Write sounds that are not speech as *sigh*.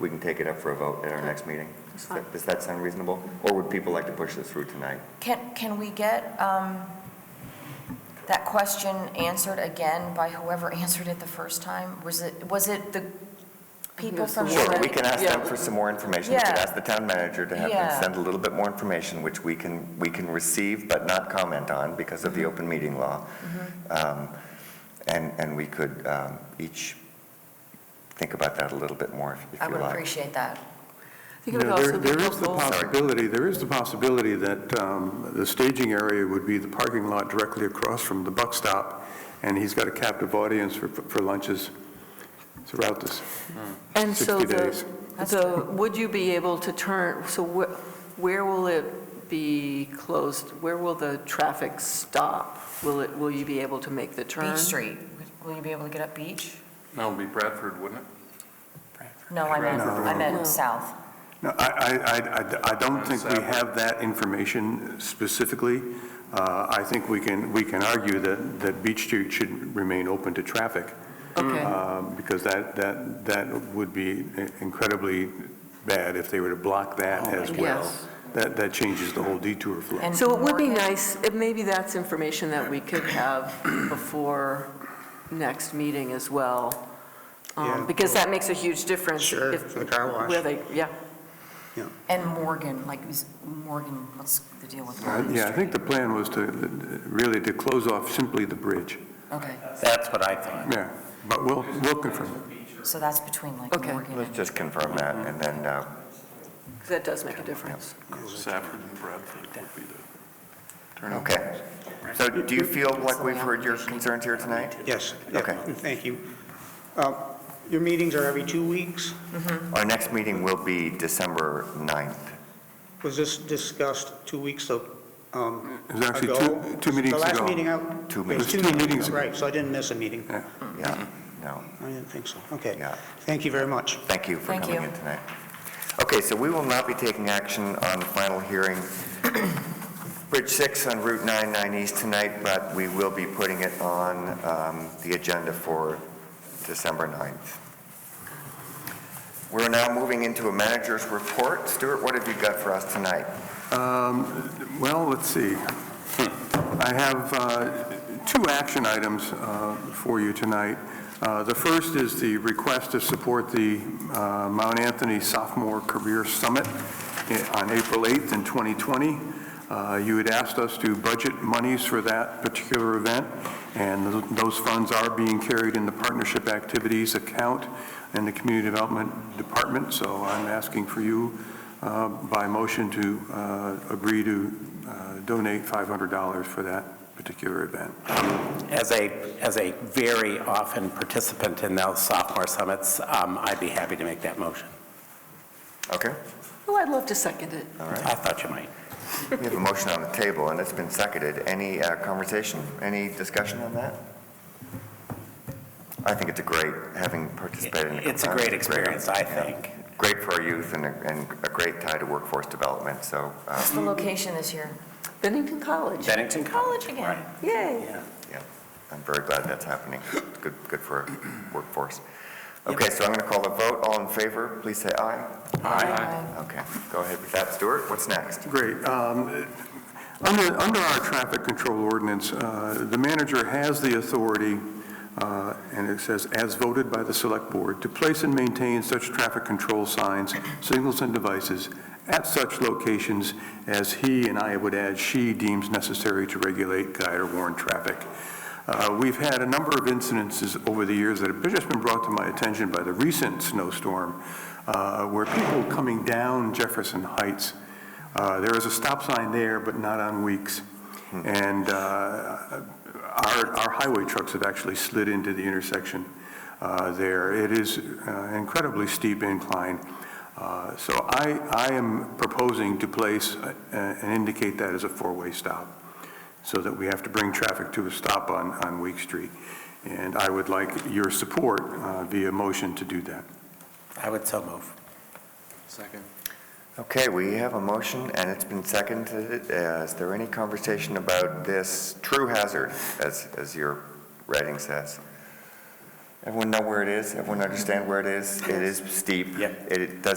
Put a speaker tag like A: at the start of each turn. A: we can take it up for a vote at our next meeting. Does that- Does that sound reasonable? Or would people like to push this through tonight?
B: Can, can we get um, that question answered again by whoever *laughs* answered it the first time? Was it, was it the people
C: it's
B: from?
C: the
B: the-
A: Sure, we can ask them
C: Yeah.
A: for some more information. We could
B: Yeah.
A: ask the town manager to have them
B: Yeah.
A: send a little bit more information, which we can, we can receive but not comment on because of the
B: Mm-hmm.
A: open meeting law. Um, And, and we could um, each think about that a little bit more if if you
B: I
A: like.
B: would appreciate that.
C: I think it would
D: Yeah, there-
C: also be
D: There is the
C: helpful.
D: possibility, there is the possibility that um, the staging area would be the parking lot directly across from the buck stop, and he's got a captive audience for for lunches throughout this.
C: And so
D: 60
C: the,
D: days.
C: the, would you be able to turn, so wh- where will it be closed? Where will the traffic stop? Will it, will you be able to make the turn?
B: Beach Street, will you be able to get up Beach?
E: That would be Bradford, wouldn't it?
B: No, I meant,
D: No.
B: I
C: No.
B: meant south.
D: No, I, I, I- I, I don't think we
E: Separate.
D: have that information specifically. Uh, I think we can, we can argue that, that Beach Street should remain open to traffic,
C: Okay,
D: uh, because that, that, that would be incredibly bad if they were to block that as well.
C: yes.
D: That, that changes the whole detour flow.
B: And
C: So it would be
B: Morgan-
C: nice, if maybe that's information that we could have *clears throat* before next meeting as well, um,
F: Yeah.
C: because that makes a huge difference.
F: Sure,
C: if-
F: for the car wash.
C: Where they, yeah,
B: And Morgan, like, is Morgan, what's the deal with
D: Uh,
B: Morgan
D: Yeah, I think the
B: Street?
D: plan was to, really to close off simply the bridge,
B: Okay,
G: That's what I thought.
D: yeah, but we'll, we'll confirm.
B: so that's between like
C: Okay.
B: Morgan
A: Let's
B: and,
A: just confirm that and then uh,
C: 'cause that does make a difference.
E: Safford and Bradford would be the turning.
A: Okay. So do you feel like we've heard your concerns here tonight?
F: Yes. yeah,
A: Okay.
F: Thank you. Uh, Your meetings are every two weeks?
A: Our next meeting will be December 9th.
F: Was this discussed two weeks of, um,
D: It was actually
F: ago?
D: two, two meetings
F: The last
D: ago.
F: meeting, I...
A: Two
F: it was
A: meetings.
D: Two meetings ago.
F: Right, so I didn't miss a meeting.
D: Yeah.
A: Yeah,
B: Mm-hmm.
A: no,
F: I didn't think so. Okay.
A: yeah.
F: Thank you very much.
A: Thank you for
B: Thank
A: coming
B: you.
A: in tonight. Okay, so we will not be taking action on the final hearing, *clears throat* Bridge 6 on Route 99 East tonight, but we will be putting it on um, the agenda for December 9th. We're now moving into a manager's report. Stuart, what have you got for us tonight?
D: Um, Well, let's see. I have uh, two action items uh, for you tonight. Uh, The first is the request to support the uh, Mount Anthony Sophomore Career Summit i- on April 8th in 2020. Uh, You had asked us to budget monies for that particular event, and th- those funds are being carried in the partnership activities account in the Community Development Department, so I'm asking for you uh, by motion to uh, agree to uh, donate $500 for that particular event.
G: As a, as a very often participant in those sophomore summits, um, I'd be happy to make that motion.
A: Okay,
C: Well, Oh, I'd love to second it.
A: all right.
G: I thought you might.
A: We have a motion on the table, and it's been seconded. Any uh, conversation, any discussion on that? I think it's a great, having participated in the
G: It's a great experience, I think.
A: great for our youth and a, and a great tie to workforce development, so, um,
B: what's the location this year?
C: Bennington College,
G: Bennington College.
B: College again.
G: Right.
C: yay.
G: Yeah.
A: yeah, I'm very glad that's happening. Good, good for our workforce. Okay, so I'm going to call the vote. All in favor, please say aye. Okay, go ahead with that, Stuart. What's next?
D: Great. Um, Under, under our traffic control ordinance, uh, the manager has the authority, uh, and it says, as voted by the select board, to place and maintain such traffic control signs, signals, and devices at such locations as he, and I would add, she deems necessary to regulate, guide, or warn traffic. Uh, We've had a number of incidences over the years that have just been brought to my attention by the recent snowstorm, uh, where people coming down Jefferson Heights uh, There is a stop sign there, but not on Weeks. And uh, our our highway trucks have actually slid into the intersection uh, there. It is uh, incredibly steep incline. Uh, So I I am proposing to place uh, and indicate that as a four-way stop, so that we have to bring traffic to a stop on on Week Street. And I would like your support uh, via motion to do that.
G: I would so move.
E: Second.
A: Okay, we have a motion, and it's been seconded. Uh, Is there any conversation about this true hazard, as, as your writing says? Everyone know where it is? Everyone understand where it is? It is steep.
G: Yep.
A: It does